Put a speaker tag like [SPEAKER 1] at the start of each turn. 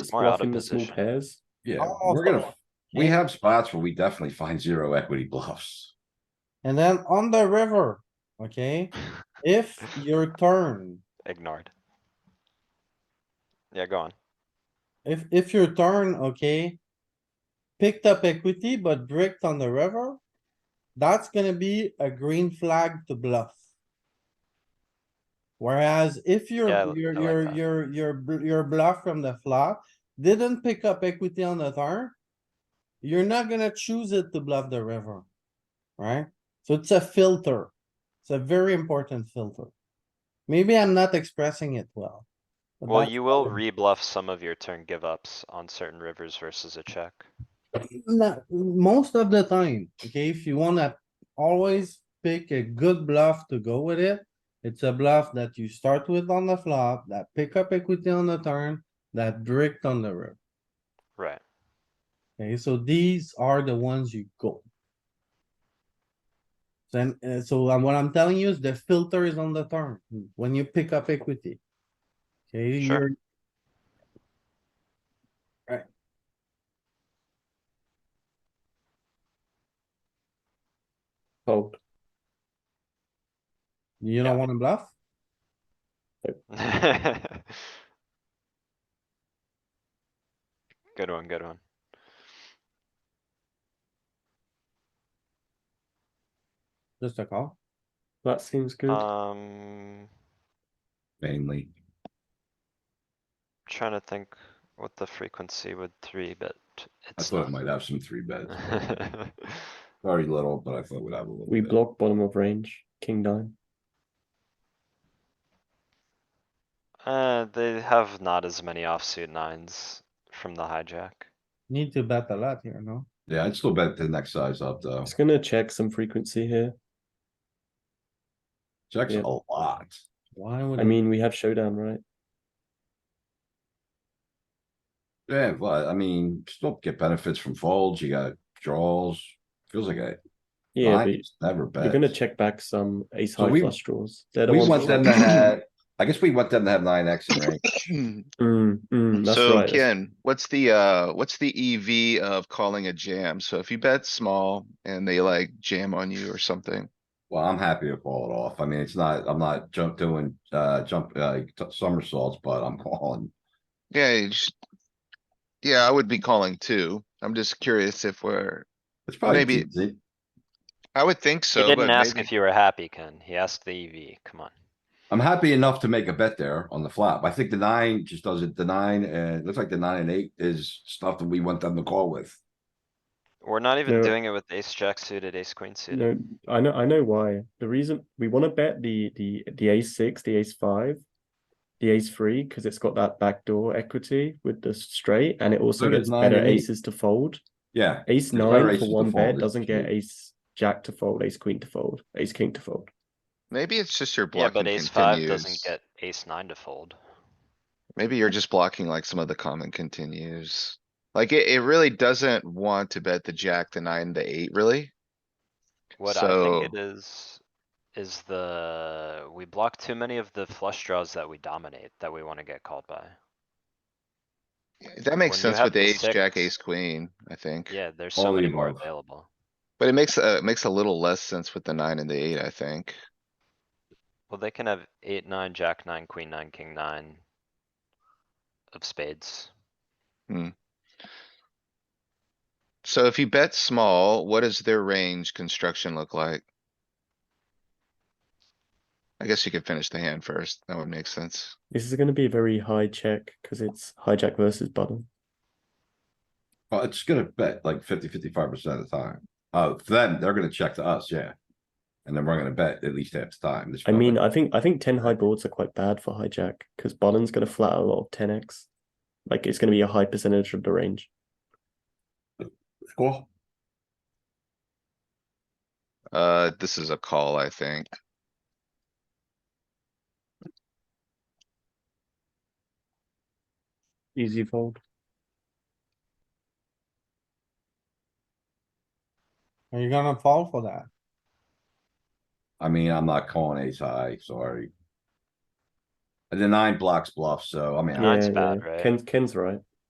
[SPEAKER 1] It's
[SPEAKER 2] We're out of
[SPEAKER 1] bluffing the small
[SPEAKER 2] position.
[SPEAKER 1] pairs.
[SPEAKER 3] Yeah,
[SPEAKER 4] Almost
[SPEAKER 3] we're gonna,
[SPEAKER 4] all.
[SPEAKER 3] we have spots where we definitely find zero equity bluffs.
[SPEAKER 4] And then on the river, okay, if your turn,
[SPEAKER 2] Ignored. Yeah, go on.
[SPEAKER 4] if, if your turn, okay. Picked up equity but bricked on the river, that's gonna be a green flag to bluff. Whereas if your,
[SPEAKER 2] Yeah, I li-
[SPEAKER 4] your,
[SPEAKER 2] I like
[SPEAKER 4] your,
[SPEAKER 2] that.
[SPEAKER 4] your, your, bl- your bluff from the flop didn't pick up equity on the turn. You're not gonna choose it to bluff the river, right? So it's a filter. It's a very important filter. Maybe I'm not expressing it well. but
[SPEAKER 2] Well,
[SPEAKER 4] that's
[SPEAKER 2] you will
[SPEAKER 4] how it-
[SPEAKER 2] re-bluff some of your turn give ups on certain rivers versus a check.
[SPEAKER 4] No, most of the time, okay, if you wanna always pick a good bluff to go with it. It's a bluff that you start with on the flop, that pick up equity on the turn, that bricked on the river.
[SPEAKER 2] Right.
[SPEAKER 4] Okay, so these are the ones you go. Then, uh, so um, what I'm telling you is the filter is on the turn, when you pick up equity. Okay,
[SPEAKER 2] Sure.
[SPEAKER 4] you're,
[SPEAKER 1] Fold.
[SPEAKER 4] you
[SPEAKER 2] Yeah.
[SPEAKER 4] don't wanna bluff?
[SPEAKER 2] Good one, good one.
[SPEAKER 4] Just a call.
[SPEAKER 1] That seems good.
[SPEAKER 2] Uh, Um,
[SPEAKER 3] Mainly,
[SPEAKER 2] trying to think what the frequency would three, but
[SPEAKER 3] I
[SPEAKER 2] it's
[SPEAKER 3] thought it
[SPEAKER 2] not.
[SPEAKER 3] might have some three bets, very little, but I thought we'd have a little
[SPEAKER 1] we
[SPEAKER 3] bit.
[SPEAKER 1] block bottom of range. King nine.
[SPEAKER 2] Uh, they have not as many offsuit nines from the hijack.
[SPEAKER 4] Need to bet a lot here, no?
[SPEAKER 3] Yeah, I'd still bet the next size up though.
[SPEAKER 1] It's gonna check some frequency here.
[SPEAKER 3] Checks
[SPEAKER 1] yeah.
[SPEAKER 3] a lot.
[SPEAKER 4] Why would?
[SPEAKER 1] I
[SPEAKER 2] Mm-hmm.
[SPEAKER 4] it-
[SPEAKER 1] mean, we have showdown, right?
[SPEAKER 3] Yeah, but I mean, still get benefits from folds. You got draws. Feels like a
[SPEAKER 1] Yeah,
[SPEAKER 3] nine is never
[SPEAKER 1] but
[SPEAKER 3] bet.
[SPEAKER 1] you're gonna check back some ace
[SPEAKER 3] So
[SPEAKER 1] high
[SPEAKER 3] we-
[SPEAKER 1] flush draws. They're the
[SPEAKER 3] We
[SPEAKER 1] ones
[SPEAKER 3] want
[SPEAKER 1] that-
[SPEAKER 3] them to have, I guess we want them to have nine X in range.
[SPEAKER 1] Mm, mm, that's
[SPEAKER 5] Hmm, So
[SPEAKER 1] right. that's-
[SPEAKER 5] Ken, what's the, uh, what's the EV of calling a jam? So if you bet small and they like jam on you or something,
[SPEAKER 3] Well, I'm happy to call it off. I mean, it's not, I'm not jump doing, uh, jump, uh, t- somersaults, but I'm calling.
[SPEAKER 5] yeah, you just. Yeah, I would be calling too. I'm just curious if we're,
[SPEAKER 3] It's probably.
[SPEAKER 5] Maybe-
[SPEAKER 3] decent.
[SPEAKER 5] I would think
[SPEAKER 2] He
[SPEAKER 5] so, but
[SPEAKER 2] didn't ask
[SPEAKER 5] maybe,
[SPEAKER 2] if you were happy, Ken. He asked the EV, come on.
[SPEAKER 3] I'm happy enough to make a bet there on the flop. I think the nine just does it. The nine, uh, it looks like the nine and eight is stuff that we want them to call with.
[SPEAKER 2] We're not even
[SPEAKER 1] No.
[SPEAKER 2] doing it with ace jack suited, ace queen suited.
[SPEAKER 1] No, I know, I know why. The reason we want to bet the the the ace six, the ace five, the ace three, because it's got that backdoor equity with the straight, and it also
[SPEAKER 3] So does
[SPEAKER 1] gets
[SPEAKER 3] nine
[SPEAKER 1] better
[SPEAKER 3] and eight.
[SPEAKER 1] aces to fold.
[SPEAKER 3] Yeah,
[SPEAKER 1] Ace
[SPEAKER 3] There's better
[SPEAKER 1] nine
[SPEAKER 3] aces
[SPEAKER 1] for
[SPEAKER 3] to
[SPEAKER 1] one
[SPEAKER 3] fold,
[SPEAKER 1] bet
[SPEAKER 3] it's
[SPEAKER 1] doesn't get
[SPEAKER 3] true.
[SPEAKER 1] ace jack to fold, ace queen to fold, ace king to fold.
[SPEAKER 5] maybe it's just your
[SPEAKER 2] Yeah,
[SPEAKER 5] blocking
[SPEAKER 2] but ace five doesn't
[SPEAKER 5] continues.
[SPEAKER 2] get ace nine to fold.
[SPEAKER 5] Maybe you're just blocking like some of the common continues. Like it, it really doesn't want to bet the jack, the nine, the eight, really?
[SPEAKER 2] What I think
[SPEAKER 5] So-
[SPEAKER 2] it is, is the, we block too many of the flush draws that we dominate, that we wanna get called by.
[SPEAKER 5] That makes
[SPEAKER 2] When you
[SPEAKER 5] sense
[SPEAKER 2] have
[SPEAKER 5] with
[SPEAKER 2] the
[SPEAKER 5] ace, jack,
[SPEAKER 2] six-
[SPEAKER 5] ace, queen, I think.
[SPEAKER 2] Yeah, there's
[SPEAKER 3] All
[SPEAKER 2] so
[SPEAKER 3] the
[SPEAKER 2] many more
[SPEAKER 3] above.
[SPEAKER 2] available.
[SPEAKER 5] But it makes, uh, it makes a little less sense with the nine and the eight, I think.
[SPEAKER 2] Well, they can have eight, nine, jack nine, queen nine, king nine. Of spades.
[SPEAKER 5] So if you bet small, what does their range construction look like? I guess you could finish the hand first. That would make sense.
[SPEAKER 1] This is going to be a very high check because it's hijack versus button.
[SPEAKER 3] well, it's gonna bet like 50, 55 percent of the time. Oh, for them, they're gonna check to us, yeah. And then we're gonna bet at least half the time. This
[SPEAKER 1] I
[SPEAKER 3] felt
[SPEAKER 1] mean,
[SPEAKER 3] like-
[SPEAKER 1] I think I think ten high boards are quite bad for hijack because button's going to flat out a lot of ten x. Like it's going to be a high percentage of the range.
[SPEAKER 3] Cool.
[SPEAKER 5] Uh, this is a call, I think.
[SPEAKER 1] Easy fold.
[SPEAKER 4] Are you gonna fall for that?
[SPEAKER 3] I mean, I'm not calling ace high, sorry. And the nine blocks bluff, so I mean, I-
[SPEAKER 2] Nine's bad, right?
[SPEAKER 1] Ken's Ken's right.